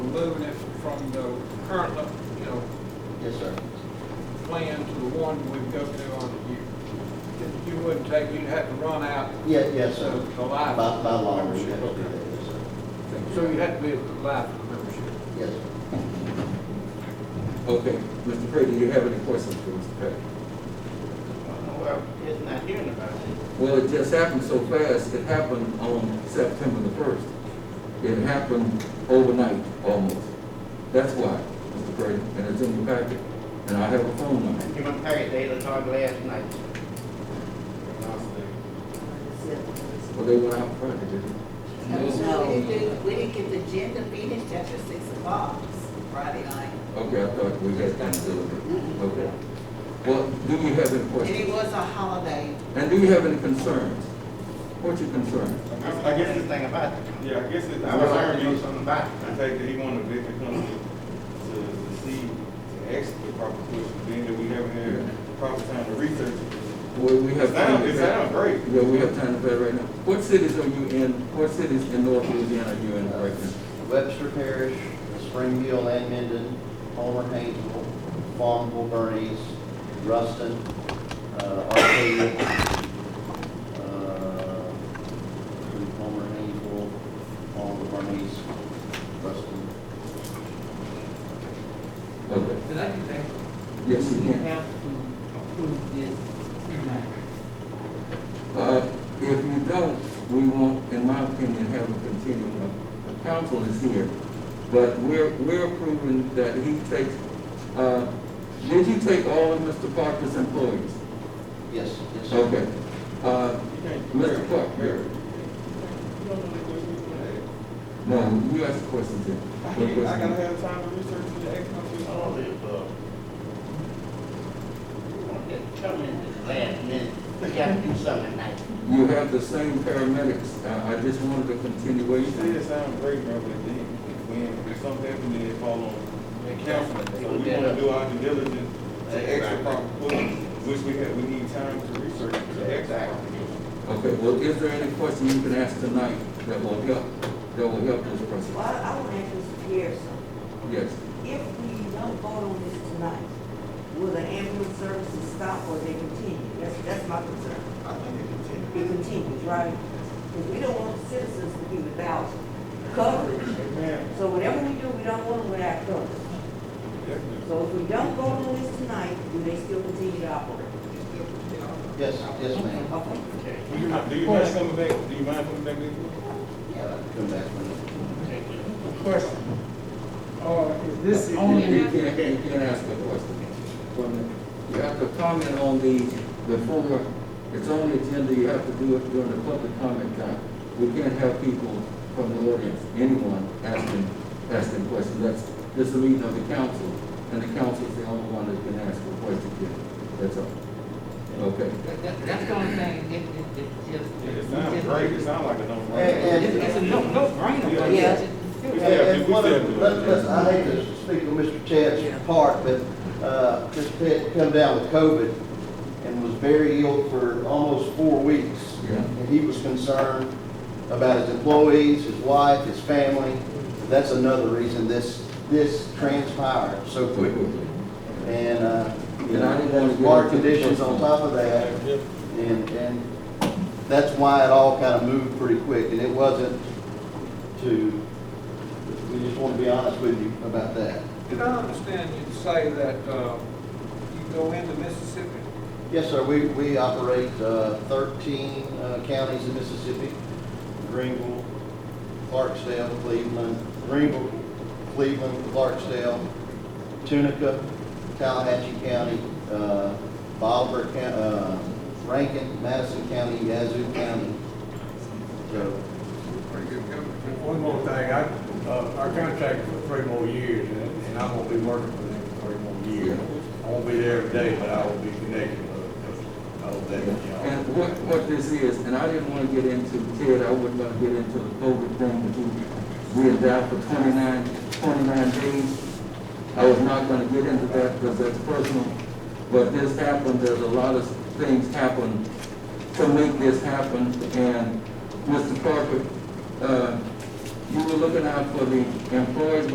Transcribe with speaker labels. Speaker 1: moving it from the current, you know,
Speaker 2: Yes, sir.
Speaker 1: plan to the one we go to on the year. You wouldn't take, you'd have to run out,
Speaker 2: Yeah, yes, sir.
Speaker 1: The life.
Speaker 2: By, by law, we have to do
Speaker 1: Membership.
Speaker 2: that, yes, sir.
Speaker 1: so you have to be a life membership.
Speaker 2: Yes, sir.
Speaker 3: Okay, Mr. Pray, do you have any questions for Mr. Pray?
Speaker 4: Well, it's not hearing about it.
Speaker 3: Well, it just happened so fast, it happened on September the first. It happened overnight, almost. That's why, Mr. Pray, and it's in your packet, and I have a phone number.
Speaker 4: You want to pay it, they done talked last night.
Speaker 3: Well, they went out Friday, didn't
Speaker 5: No, we didn't, we didn't get the agenda meeting till after six o'clock Friday night.
Speaker 3: they? Okay, I thought we had time to do it. Okay. Well, do you have
Speaker 5: And
Speaker 3: any
Speaker 5: it
Speaker 3: questions?
Speaker 5: was a holiday.
Speaker 3: And do you have any concerns? What's your concern?
Speaker 4: I don't know anything about it.
Speaker 6: Yeah, I guess it,
Speaker 4: I
Speaker 6: I
Speaker 4: would
Speaker 6: was
Speaker 4: like to know
Speaker 6: arguing,
Speaker 4: something about
Speaker 6: the
Speaker 4: it.
Speaker 6: fact that he wanted the victim company to, to see, to ask the proper question, being that we haven't had the proper time to research. it.
Speaker 3: Well, we have.
Speaker 6: It sound-
Speaker 3: time to
Speaker 6: it sound great.
Speaker 3: Yeah, we have time to play right now. What cities are you in, what cities in North Louisiana are you in right now?
Speaker 2: Uh, Webster Parish, Springfield and Minden, Homer Haynesville, Farmville Bernice, Ruston, uh, Arcadia, uh, Homer Haynesville, Farmville Bernice, Ruston.
Speaker 3: Okay,
Speaker 7: But I can think,
Speaker 3: yes, you
Speaker 7: we
Speaker 3: can.
Speaker 7: have to approve this tonight.
Speaker 3: Uh, if you don't, we won't, in my opinion, have a continuum. The council is here, but we're, we're approving that he takes, uh, did you take all of Mr. Parker's employees?
Speaker 2: Yes, yes, sir.
Speaker 3: Okay. Uh, Mr. Clark,
Speaker 6: Mary.
Speaker 3: Mary.
Speaker 6: You don't know the question you wanna
Speaker 3: no, you asked the questions then.
Speaker 6: ask. I can't- I gotta have time to research and ask my question.
Speaker 4: All this, uh, you want that to come in this last minute, we got to do something tonight.
Speaker 3: You have the same paramedics, Uh, I, I just wanted a
Speaker 6: You said
Speaker 3: continuation.
Speaker 6: it sounded great, bro, but then when something happened, then it fall on the council. So we wanna do our due diligence to ask the proper question, which we have, we need time to research to ask the proper question.
Speaker 3: Okay, well, is there any question you can ask tonight that will help, that will help this
Speaker 8: Well,
Speaker 3: person?
Speaker 8: I want to ask Mr. Pierce, something.
Speaker 3: Yes.
Speaker 8: if we don't vote on this tonight, will the ambulance services stop or they continue? That's, that's my concern.
Speaker 4: I think it
Speaker 8: It
Speaker 4: continues.
Speaker 8: continues, right? Because we don't want citizens to be without coverage.
Speaker 6: Amen.
Speaker 8: So whatever we do, we don't want them without coverage.
Speaker 6: Definitely.
Speaker 8: So if we don't vote on this tonight, do they still continue to operate?
Speaker 2: Yes, yes, ma'am.
Speaker 8: Okay.
Speaker 4: Okay,
Speaker 6: Do you mind do you mind coming back, do you mind coming back this week?
Speaker 2: Yeah, I can come back when.
Speaker 4: take it.
Speaker 7: Question. Or is this
Speaker 3: You-
Speaker 7: only?
Speaker 3: You can't, you can't ask a question. From the- You have to comment on the, the former, it's on the agenda, you have to do it during the public comment time. We can't have people from the audience, anyone asking, asking questions. That's, this is a meeting of the council, and the council's the only one that can ask a question here. That's all. Okay.
Speaker 7: That- that- That's the only thing, it, it, it just.
Speaker 6: Yeah, It sounds great, it sounds like a
Speaker 2: And-
Speaker 7: It's
Speaker 2: and-
Speaker 6: no-brainer.
Speaker 7: it's a no, no brainer, but
Speaker 2: Yeah.
Speaker 7: it's-
Speaker 6: We
Speaker 2: And-
Speaker 6: said-
Speaker 2: and
Speaker 6: we
Speaker 2: one
Speaker 6: said-
Speaker 2: of- let- let's- I hate to speak on Mr. Ted's part, but, uh, Mr. Ted come down with COVID and was very ill for almost four weeks.
Speaker 3: Yeah.
Speaker 2: And he was concerned about his employees, his wife, his family. That's another reason this, this transpired so quickly. And, uh, you
Speaker 3: And I didn't want
Speaker 2: know,
Speaker 3: to-
Speaker 2: water conditions on top of that.
Speaker 6: Yeah.
Speaker 2: And, and that's why it all kind of moved pretty quick, and it wasn't to, we just want to be honest with you about that.
Speaker 1: Did I understand you to say that, uh, you go into Mississippi?
Speaker 2: Yes, sir, we, we operate uh, thirteen uh, counties in Mississippi, Greenville, Clarksdale, Cleveland, Greenville, Cleveland, Clarksdale, Tunica, Tallahatchie County, uh, Bolivar, County, uh, Rankin, Madison County, Yazoo County. So,
Speaker 1: Pretty good government.
Speaker 9: One more thing, I, uh, our contract is for three more years, and and I'm gonna be working for them for three more years. I won't be there every day, but I will be connected uh, with, I will be, you know.
Speaker 3: And what, what this is, and I didn't want to get into, Ted, I wasn't going to get into the COVID thing, but we, we had died for 29 29 days. I was not going to get into that because that's personal, but this happened, there's a lot of things happen to make this happen, and Mr. Parker, uh, you were looking out for the employees,